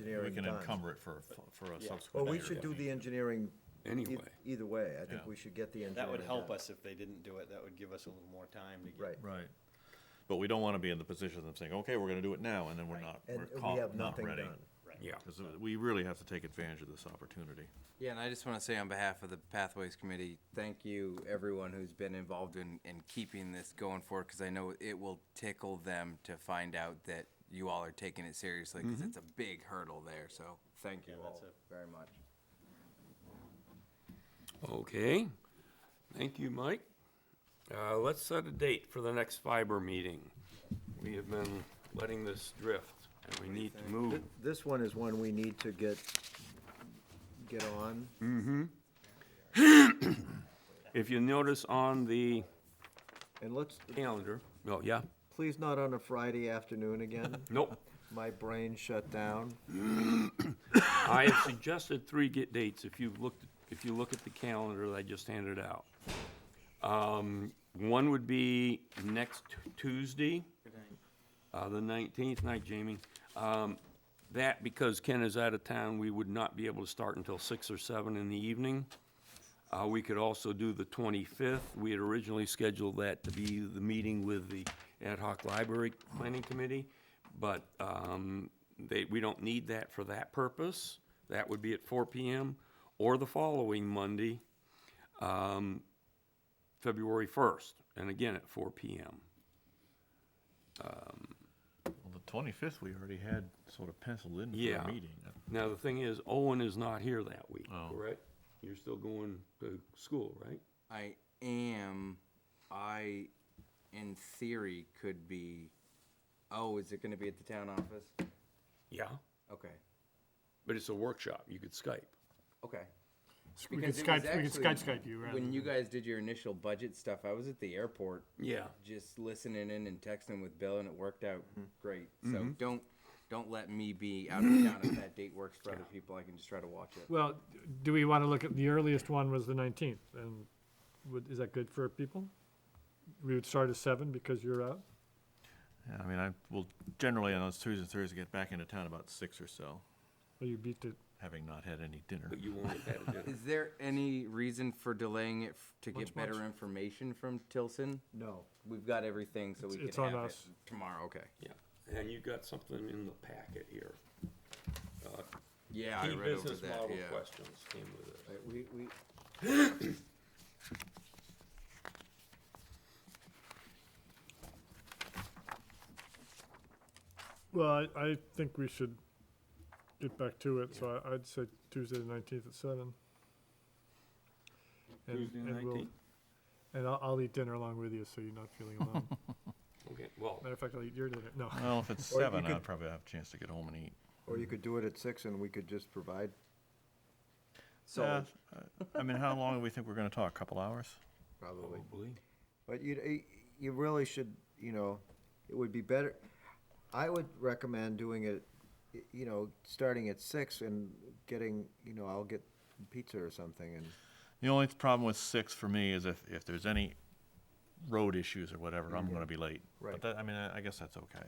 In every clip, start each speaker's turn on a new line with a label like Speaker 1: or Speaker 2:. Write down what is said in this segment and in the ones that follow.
Speaker 1: we
Speaker 2: engineering
Speaker 1: can
Speaker 2: done.
Speaker 1: encumber it for, for a subsequent.
Speaker 2: Well, we
Speaker 1: year.
Speaker 2: should do the engineering. e-
Speaker 3: Anyway.
Speaker 2: Either way, I think
Speaker 1: Yeah.
Speaker 2: we should get the engineering.
Speaker 4: That would help
Speaker 2: done.
Speaker 4: us if they didn't do it, that would give us a little more time to get.
Speaker 2: Right.
Speaker 1: Right. But we don't want to be in the position of saying, okay, we're going to do it now, and then we're not, we're
Speaker 2: And
Speaker 1: caught,
Speaker 2: we have
Speaker 1: not
Speaker 2: nothing
Speaker 1: ready.
Speaker 2: done.
Speaker 4: Right.
Speaker 3: Yeah.
Speaker 1: Because we really have to take advantage of this opportunity.
Speaker 5: Yeah, and I just want to say on behalf of the Pathways Committee, thank you, everyone who's been involved in, in keeping this going forward, because I know it will tickle them to find out that you all are taking it seriously, because it's a big hurdle there, so thank you
Speaker 4: Yeah, that's
Speaker 5: all very much.
Speaker 3: Okay, thank you, Mike. Uh, let's set a date for the next fiber meeting. We have been letting this drift, and we need to move.
Speaker 2: Th- This one is one we need to get, get on.
Speaker 3: If you notice on the
Speaker 2: And let's,
Speaker 3: calendar, oh, yeah,
Speaker 2: please not on a Friday afternoon again.
Speaker 3: nope.
Speaker 2: My brain shut down.
Speaker 3: I have suggested three get dates, if you've looked, if you look at the calendar that I just handed out. Um, one would be next Tuesday, uh, the nineteenth, night Jamie. Um, that, because Ken is out of town, we would not be able to start until six or seven in the evening. Uh, we could also do the twenty-fifth, we had originally scheduled that to be the meeting with the ad hoc library planning committee, but, um, they, we don't need that for that purpose, that would be at four P M, or the following Monday, um, February first, and again at four P M.
Speaker 1: Well, the twenty-fifth, we already had sort of penciled in
Speaker 3: Yeah.
Speaker 1: for a meeting.
Speaker 3: Now, the thing is, Owen is not here that week,
Speaker 1: Oh.
Speaker 3: correct? You're still going to school, right?
Speaker 5: I am, I, in theory, could be, oh, is it going to be at the town office?
Speaker 3: Yeah.
Speaker 5: Okay,
Speaker 3: But it's a workshop, you could Skype.
Speaker 5: okay.
Speaker 6: We could
Speaker 5: Because it was
Speaker 6: Skype, we could Skype
Speaker 5: actually-
Speaker 6: Skype you rather
Speaker 5: When
Speaker 6: than.
Speaker 5: you guys did your initial budget stuff, I was at the airport
Speaker 3: Yeah.
Speaker 5: just listening in and texting with Bill, and it worked out
Speaker 6: Mm-hmm.
Speaker 5: great. So don't don't let me be out of town if that date works for other people. I can just try to watch it.
Speaker 6: Well, do we want to look at, the earliest one was the nineteenth, and would, is that good for people? We would start at seven because you're out?
Speaker 1: Yeah, I mean, I will generally on those Tuesdays and Thursdays get back into town about six or so,
Speaker 6: Or you beat it?
Speaker 1: having not had any dinner.
Speaker 3: But you won't have had a dinner.
Speaker 5: Is there any reason for delaying it f- to get better information from Tilson?
Speaker 2: No.
Speaker 5: We've got everything, so we
Speaker 6: It's- it's
Speaker 5: can
Speaker 6: on
Speaker 5: have
Speaker 6: us.
Speaker 5: it tomorrow. Okay.
Speaker 3: Yeah, and you got something in the packet here. Uh,
Speaker 5: Yeah, I
Speaker 3: Key
Speaker 5: read over
Speaker 3: business
Speaker 5: that.
Speaker 3: model
Speaker 5: yeah.
Speaker 3: questions came with it.
Speaker 2: Right, We, we,
Speaker 6: Well, I, I think we should get back to it, so I, I'd say Tuesday the nineteenth at seven. And-
Speaker 3: Tuesday the
Speaker 6: and we'll-
Speaker 3: 19th?
Speaker 6: And I'll, I'll eat dinner along with you, so you're not feeling alone.
Speaker 3: Okay, well,
Speaker 6: Matter of fact, I'll eat your dinner, no.
Speaker 1: Well, if it's
Speaker 2: Or you
Speaker 1: seven,
Speaker 2: could-
Speaker 1: I'd probably have a chance to get home and eat.
Speaker 2: or you could do it at six and we could just provide.
Speaker 5: So
Speaker 1: Yeah, I mean, how long do we think we're going to talk? A couple hours?
Speaker 2: Probably.
Speaker 3: probably.
Speaker 2: But you, you really should, you know, it would be better, I would recommend doing it, y- you know, starting at six and getting, you know, I'll get pizza or something and,
Speaker 1: The only problem with six for me is if, if there's any road issues or whatever, I'm going to be late.
Speaker 2: Right.
Speaker 1: But that, I mean, I I guess that's okay.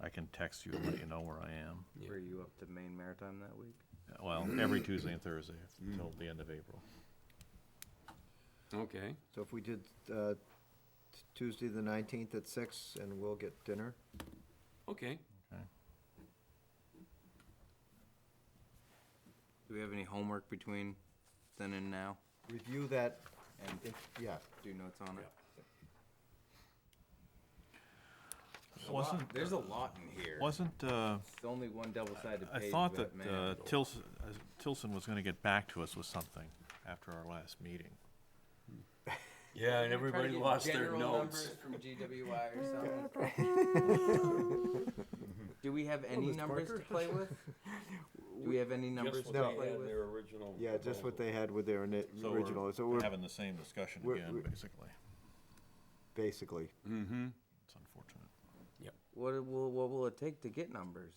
Speaker 1: I can text you and let you know where I am.
Speaker 5: were you up to Maine Maritime that week?
Speaker 1: Well, every Tuesday and Thursday until the end of April.
Speaker 3: Okay,
Speaker 2: so if we did, uh, t- Tuesday the nineteenth at six and we'll get dinner.
Speaker 3: okay.
Speaker 5: Do we have any homework between then and now?
Speaker 2: Review that,
Speaker 5: And
Speaker 2: if, yeah,
Speaker 5: do notes on it.
Speaker 1: Wasn't, uh,
Speaker 5: There's a lot in here.
Speaker 1: wasn't, uh,
Speaker 5: It's only one double-sided
Speaker 1: I
Speaker 5: page,
Speaker 1: thought that
Speaker 5: but man.
Speaker 1: uh, Tilson, uh, Tilson was going to get back to us with something after our last meeting.
Speaker 3: Yeah, and
Speaker 5: Try to
Speaker 3: everybody
Speaker 5: get
Speaker 3: lost their
Speaker 5: general
Speaker 3: notes.
Speaker 5: numbers From GWI or something. Do we have any
Speaker 6: Miss
Speaker 5: numbers to
Speaker 6: Parker.
Speaker 5: play with? Do we have any numbers to
Speaker 3: Just what they
Speaker 5: play
Speaker 3: had in
Speaker 5: with?
Speaker 3: their original
Speaker 2: yeah, just what
Speaker 3: proposal.
Speaker 2: they had with their ini-
Speaker 1: So we're
Speaker 2: original, so we're
Speaker 1: Having the same discussion
Speaker 2: we're-
Speaker 1: again,
Speaker 2: we're-
Speaker 1: basically.
Speaker 2: basically,
Speaker 1: Mm-hmm. It's unfortunate.
Speaker 5: What it will, what will it take to get numbers?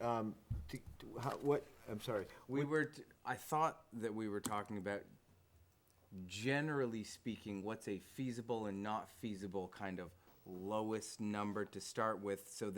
Speaker 2: um, t- t- how, what, I'm sorry,
Speaker 5: We were, t- I thought that we were talking about, generally speaking, what's a feasible and not feasible kind of lowest number to start with so that